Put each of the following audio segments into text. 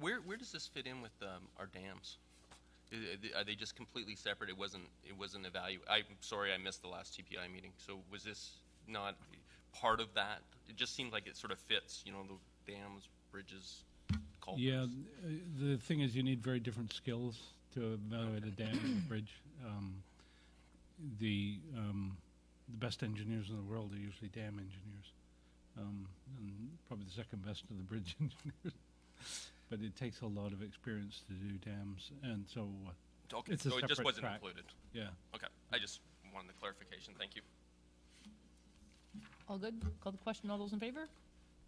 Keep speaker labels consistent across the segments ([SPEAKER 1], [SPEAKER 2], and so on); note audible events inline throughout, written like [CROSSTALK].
[SPEAKER 1] Where, where does this fit in with um, our dams? I- I- Are they just completely separate? It wasn't, it wasn't evalu, I'm sorry, I missed the last TPI meeting. So was this not part of that? It just seemed like it sort of fits, you know, the dams, bridges, culverts.
[SPEAKER 2] Yeah, uh, the thing is, you need very different skills to evaluate a dam and a bridge. Um, the um, the best engineers in the world are usually dam engineers, um, and probably the second best are the bridge [LAUGHS] engineers. but it takes a lot of experience to do dams, and so uh,
[SPEAKER 1] Okay,
[SPEAKER 2] it's a
[SPEAKER 1] so it just
[SPEAKER 2] separate
[SPEAKER 1] wasn't
[SPEAKER 2] track.
[SPEAKER 1] included.
[SPEAKER 2] yeah.
[SPEAKER 1] Okay, I just wanted the clarification, thank you.
[SPEAKER 3] All good? Call the question. All those in favor?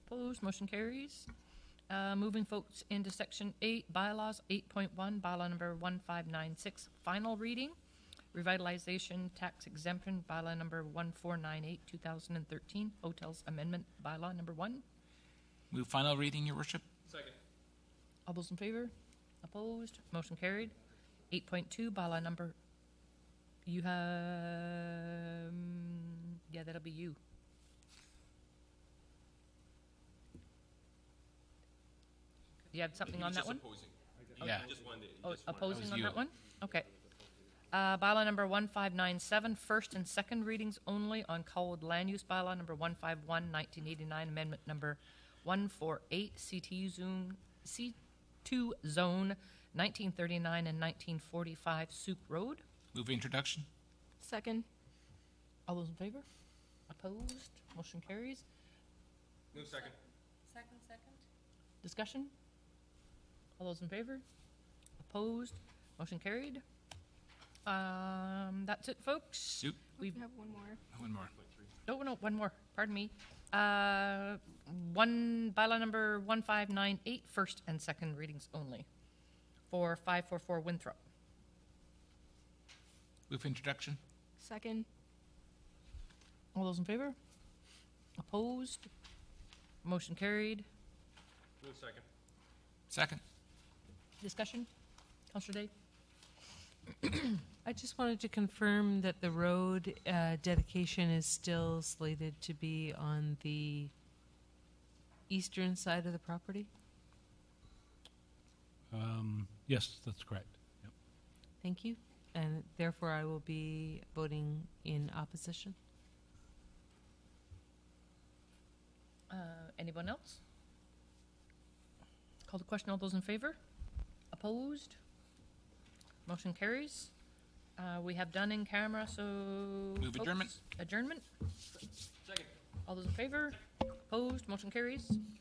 [SPEAKER 3] Opposed? Motion carries. Uh, Moving folks into section eight, bylaws, eight point one, bylaw number one five nine six, final reading. Revitalization tax exemption, bylaw number one four nine eight, two thousand and thirteen, hotels amendment, bylaw number one.
[SPEAKER 4] Move final reading, Your Worship.
[SPEAKER 3] All those in favor? Opposed? Motion carried. Eight point two, bylaw number, you have, yeah, that'll be you. You have something on that one?
[SPEAKER 4] Yeah.
[SPEAKER 3] Oh, Opposing
[SPEAKER 4] was
[SPEAKER 3] on
[SPEAKER 4] you.
[SPEAKER 3] that one? Okay. Uh, bylaw number one five nine seven, first and second readings only on Colwood Land Use Bylaw number 151, 1989, amendment number one four eight, CTU zone, C two zone, nineteen thirty-nine and nineteen forty-five Soup Road.
[SPEAKER 4] Move introduction.
[SPEAKER 5] Second.
[SPEAKER 3] All those in favor? Opposed? Motion carries.
[SPEAKER 1] Move second.
[SPEAKER 6] Second, second?
[SPEAKER 3] Discussion? All those in favor? Opposed? Motion carried. Um, that's it, folks.
[SPEAKER 4] Soup.
[SPEAKER 3] We've
[SPEAKER 5] We have one more.
[SPEAKER 4] One more.
[SPEAKER 3] No, no, one more, pardon me. Uh, One, bylaw number 1598, first and second readings only, for 544 Winthrop.
[SPEAKER 4] Move introduction.
[SPEAKER 5] Second.
[SPEAKER 3] All those in favor? Opposed? Motion carried.
[SPEAKER 1] Move second.
[SPEAKER 4] Second.
[SPEAKER 3] Discussion? Counselor Day?
[SPEAKER 6] I just wanted to confirm that the road uh, dedication is still slated to be on the eastern side of the property?
[SPEAKER 2] Um, yes, that's correct. Yep.
[SPEAKER 6] Thank you. And therefore, I will be voting in opposition.
[SPEAKER 3] Uh, Anyone else? Call the question, all those in favor? Opposed? Motion carries. Uh, We have done in camera, so.
[SPEAKER 4] Move adjournment.
[SPEAKER 3] folks, Adjournment?
[SPEAKER 1] Second.
[SPEAKER 3] All those in favor? Opposed? Motion carries.